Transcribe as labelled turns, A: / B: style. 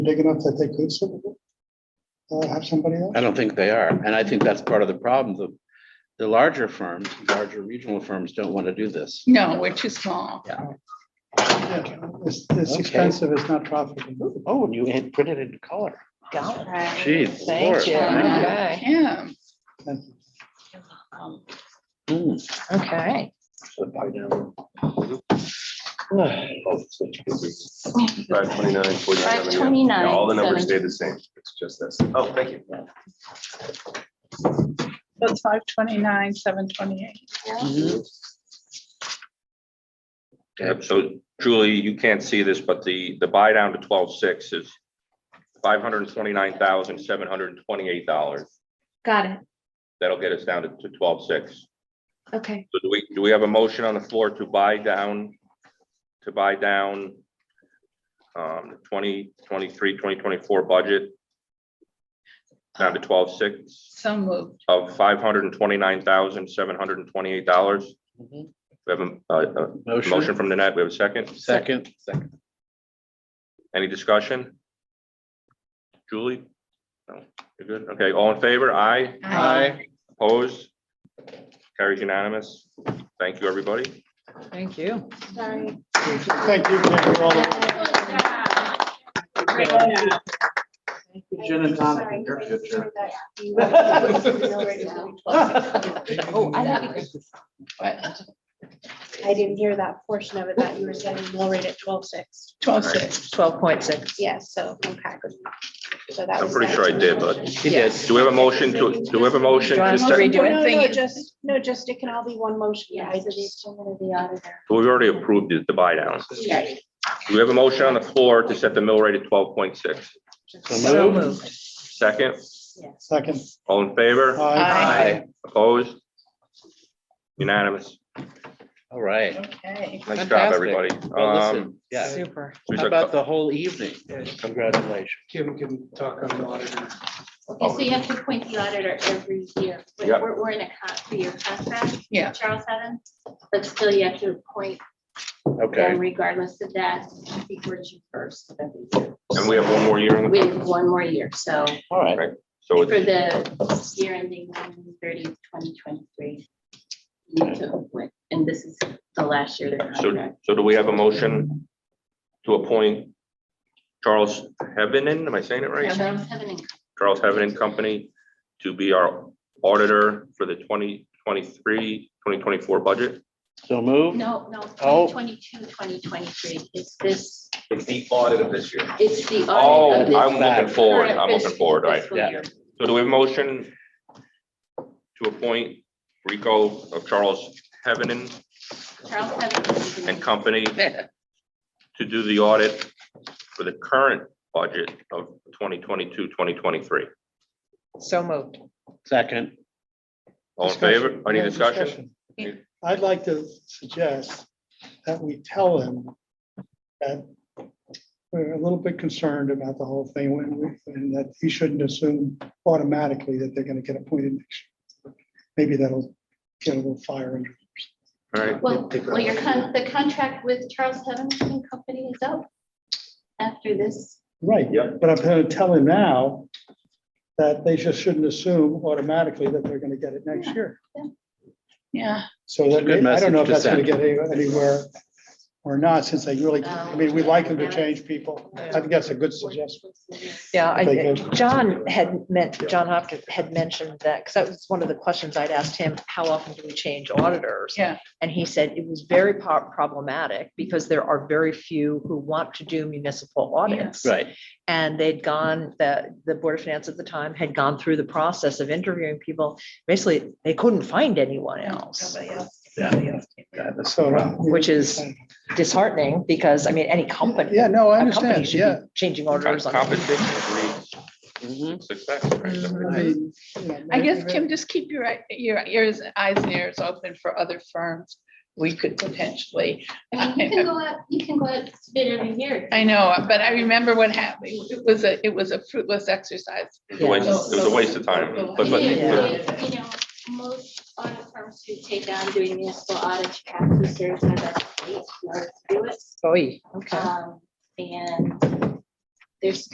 A: big enough that they could serve it? Uh, have somebody else?
B: I don't think they are, and I think that's part of the problem. The, the larger firms, larger regional firms don't want to do this.
C: No, we're too small.
A: Yeah, It's, it's
B: Okay.
A: expensive, it's not profitable.
B: Oh, and you had printed in color.
D: Got it.
B: Jeez.
D: Thank
B: Lord.
D: you.
C: Um, uh,
B: Thank
D: Okay.
C: Yeah.
A: Thank you.
B: you. Mm.
D: Okay.
B: Hmm.
E: Five twenty-nine, forty-nine.
D: 529,
E: All the numbers
D: seven.
E: stay the same. It's just this. Oh, thank you.
C: That's five twenty-nine, seven twenty-eight.
F: Yep, so Julie, you can't see this, but the, the buy down to twelve six is five hundred and twenty-nine thousand, seven hundred and twenty-eight dollars.
G: Got it.
F: That'll get us down to twelve six.
G: Okay.
F: So do we, do we have a motion on the floor to buy down, to buy down um, 2023, 2024 budget down to twelve six
C: So moved.
F: of five hundred and twenty-nine thousand, seven hundred and twenty-eight dollars? We
B: Mhm.
F: have a, a- a motion
B: Motion,
F: from Nanette. We have a second?
B: second, second.
F: Any discussion? Julie? No, you're good. Okay, all in favor? Aye.
C: Aye.
F: Opposed? Carries unanimous. Thank you, everybody.
D: Thank you.
G: Sorry.
A: Thank you. Thank you all.
G: Jen and Tom.
D: Oh, I thought you
G: I didn't hear that portion of it that you were saying mill rate at twelve six.
C: Twelve six.
D: Twelve point six.
G: Yes, so, okay. So that
F: I'm
G: was
F: pretty
G: that.
F: sure I did, but-
B: He did.
F: Do we have a motion to, do we have a motion
D: Do you
F: to,
D: want
F: sec-
D: redo it?
F: we've
H: Oh,
G: No, no, no,
D: Thingy.
G: just, no, just it can all be one motion. Yeah, I just.
F: already approved the- the buy down.
G: Okay.
F: Do we have a motion on the floor to set the mill rate at twelve point six?
B: So moved.
F: Second,
A: Second.
F: all in favor?
A: Aye.
B: Aye.
F: Opposed? Unanimous.
B: All right.
C: Okay.
F: Nice job,
B: Fantastic.
F: everybody.
B: Well,
F: Um,
B: listen, yeah.
D: Super.
F: there's
B: How
F: a
B: about
F: cou-
B: the whole evening? Congratulations.
A: Kim can talk on the auditor.
H: so you have to appoint the auditor every year. We're-
F: Yep.
H: We're, we're in a con- three-year contract.
C: Yeah.
H: Charles Haddon, but still you have to appoint
B: Okay.
H: them regardless of that before June first. of every year.
F: And we have one more year on the.
H: We have one more year, so
B: All right.
F: So
H: for
F: it's
H: the year ending June 30th, 2023. you need to appoint, And this is the last year of their
F: So,
H: contract.
F: so do we have a motion to appoint Charles Hevenen, am I saying it right?
H: Charles Haddon and Co.
F: Charles Hevenen Company to be our auditor for the 2023-2024 budget?
B: So moved.
H: No, no,
B: Oh.
H: 2022, 2023. It's this,
E: It's the audit of this year.
H: it's the
F: Oh,
H: audit of this.
F: I'm looking forward, I'm
H: current
F: looking forward, all right.
H: fiscal
B: yeah.
H: year.
F: So do we have a motion to appoint Rico of Charles Hevenen
H: Charles Haddon
F: and Company
B: Yeah.
F: to do the audit for the current budget of 2022-2023?
D: So moved.
B: Second.
F: All in favor? Any
A: Yeah,
F: discussion?
A: discussion. I'd like to suggest that we tell them that we're a little bit concerned about the whole thing when we, and that he shouldn't assume automatically that they're gonna get appointed next. year. Maybe that'll get a little fire under.
F: All right,
H: Well, well, your con, the contract with Charles Evans and Company is up after this.
A: Right,
E: Yep.
A: but I'm gonna tell him now that they just shouldn't assume automatically that they're gonna get it next year.
C: Yeah.
A: So
B: It's a
A: that,
B: good
A: I don't know if
B: message
A: that's
B: to
A: gonna get any- anywhere or not, since they really, I mean, we like them to
H: Um,
A: change people. I think that's a good suggestion.
D: Yeah, I,
A: Thank you.
D: think John had meant, John Hopkins had mentioned that, because that was one of the questions I'd asked him, how often do we change auditors?
C: Yeah.
D: And he said it was very po- problematic because there are very few who want to do municipal audits.
B: Right.
D: And they'd gone, the, the Board of Finance at the time had gone through the process of interviewing people. Basically, they couldn't find anyone else.
C: Nobody else.
B: Yeah, that's-
A: So.
D: Which is disheartening because, I mean, any company.
A: Yeah, no, I
D: a company
A: understand,
D: should be
A: yeah.
D: Changing
F: Con-
D: orders on.
F: Compensation agrees
B: Mhm.
F: success, right? So-
A: I mean, you know,
C: I guess,
A: maybe-
C: Kim, just keep your, eye- your ears, eyes and ears open for other firms. We could potentially,
H: I mean, you can go out, you can go out to bid every year.
C: I know, but I remember what happened. It was a, it was a fruitless exercise.
F: It was a waste- it was a waste of time. But- but-
D: Yeah.
H: You know, most audit firms who take on doing municipal audits you have to certify that state in order to do it.
D: Oy, okay.
H: Um, And there's